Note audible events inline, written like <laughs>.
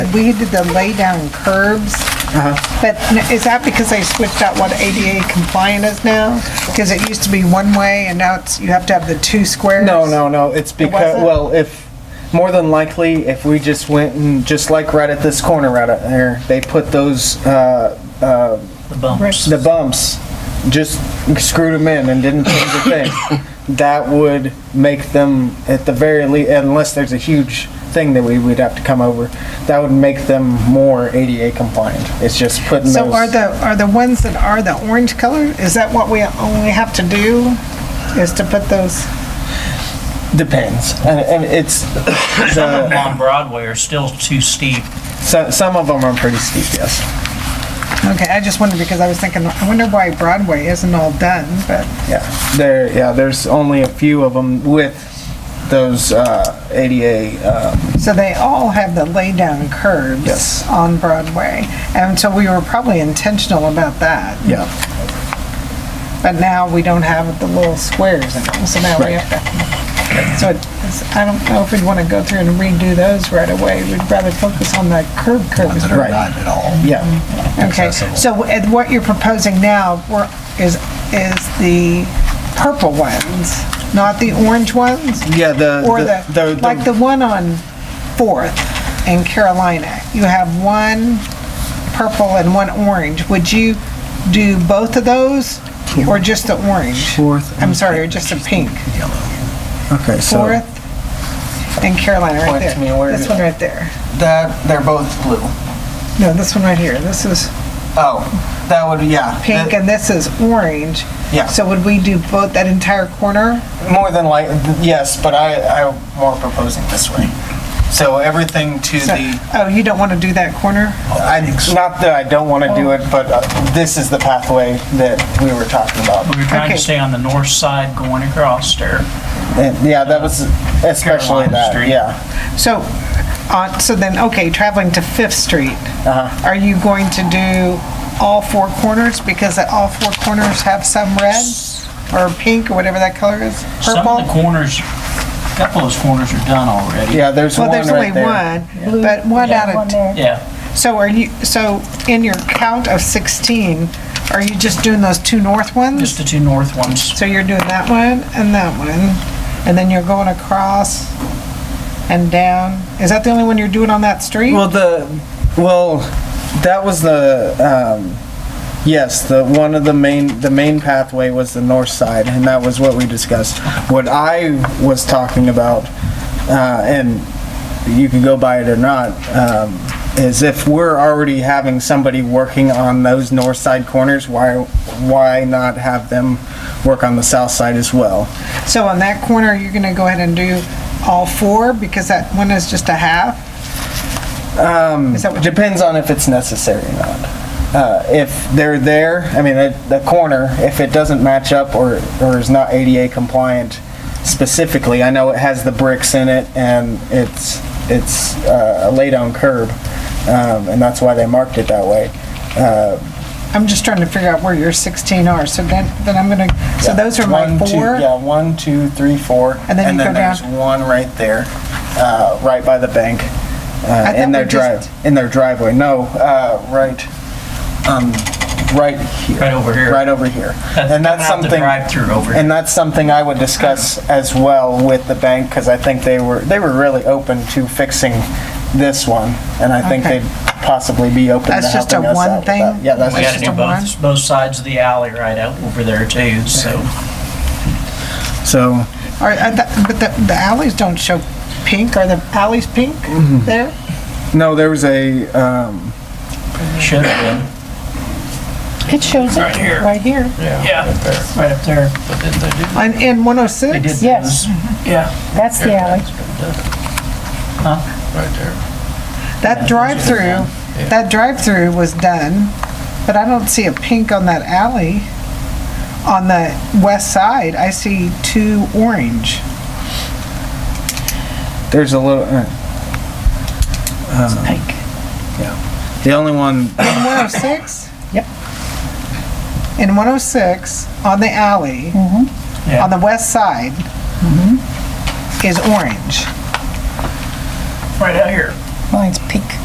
weeded the lay-down curbs. Uh-huh. But n- is that because they switched out what ADA compliant is now? Because it used to be one way and now it's, you have to have the two squares? No, no, no. It's because wasn't? well, if more than likely, if we just went and just like right at this corner right up there, they put those uh, uh, The bumps. the bumps, just screwed them in and didn't change <coughs> a thing. That would make them at the very least, unless there's a huge thing that we would have to come over, that would make them more ADA compliant. It's just putting So those. are the, are the ones that are the orange color, is that what we only have to do? Is to put those, depends, and, and it's <coughs> Some of the, them on Broadway are still too steep. so, some of them are pretty steep. Yes. okay, I just wondered because I was thinking, I wonder why Broadway isn't all done, but, Yeah, there. Yeah, there's only a few of them with those uh, ADA. Uh, so they all have the lay-down curbs. Yes. On Broadway, and so we were probably intentional about that. yeah, But now we don't have the little squares in them, so now we Right. have to, so it's, I don't know if we'd want to go through and redo those right away. We'd rather focus on the curb curves. that are Right. not at all. yeah. Okay, accessible. so at what you're proposing now we're- is, is the purple ones, not the orange ones? Yeah, the- Or the- the, the- the- like the one on Fourth in Carolina, you have one purple and one orange. Would you do both of those or just the orange? Fourth I'm and sorry, or just the pink? Okay, so Fourth in Carolina, right Point to there. me, where This is one it? right there. That, they're both blue. No, this one right here. This is Oh, that would, yeah. Uh, pink and this is orange. Yeah. So would we do both, that entire corner? more than like yes, but I, I More proposing this way. So everything to So- the, Oh, you don't want to do that corner? I not that I don't want to Oh. do it, but uh, this is the pathway that we were talking about. We were trying Okay. to stay on the north side going across there. And, yeah, that was especially Carolina that. Street. Yeah, So, uh, so then, okay, traveling to Fifth Street, Uh-huh. are you going to do all four corners? Because all four corners have some red or pink or whatever that color is? Some of the Purple? corners, a couple of those corners are done already. yeah. There's Well, one there's only right there. one, but one out of, t- Yeah, so are you, so in your count of 16, are you just doing those two north ones? just the two north ones. So you're doing that one and that one, and then you're going across and down. Is that the only one you're doing on that street? Well, the well, that was the um, yes, the one of the main the main pathway was the north side, and that was what we discussed. What I was talking about, uh, and you can go by it or not. Um, is if we're already having somebody working on those north side corners, why why not have them work on the south side as well? So on that corner, you're gonna go ahead and do all four, because that one is just a half? Um. Is that what, Depends on if it's necessary or not. Uh, if they're there, I mean, the, the corner, if it doesn't match up or, or is not ADA compliant specifically, I know it has the bricks in it and it's, it's uh, a lay-down curb, um, and that's why they marked it that way. I'm just trying to figure out where your 16 are, so then, then I'm gonna, so those are my One, two- four? Yeah, one, two, three, four. And then you go down- there's one right there, uh, right by the bank, uh, thought in their we just- drive, in their driveway. No, uh, right, um, right here. Right over here. Right over <laughs> here. That's And that's coming out the something. drive-through over. And that's something I would discuss as well with the bank, because I think they were, they were really open to fixing this one. And I think Okay. they'd possibly be open to That's just a helping us one out with thing? that. Yeah, that's We just gotta just a do one? both, both sides of the alley right out over there too, so. So, Are, are the- but the, the alleys don't show pink, are the alleys pink Mm-hmm. there? no, there was a, um, Should have It shows it right here. been. Yeah, right up there. On, in They did 106? Yes. those. Yeah, That's the alley. Right there. That drive-through, that drive-through was done, but I don't see a pink on that alley. On the west side, I see two orange. There's a little. Uh, um, Yeah. The only one. In 106? Yep. In 106, on the alley, Yeah. on the west side, is orange. right out here.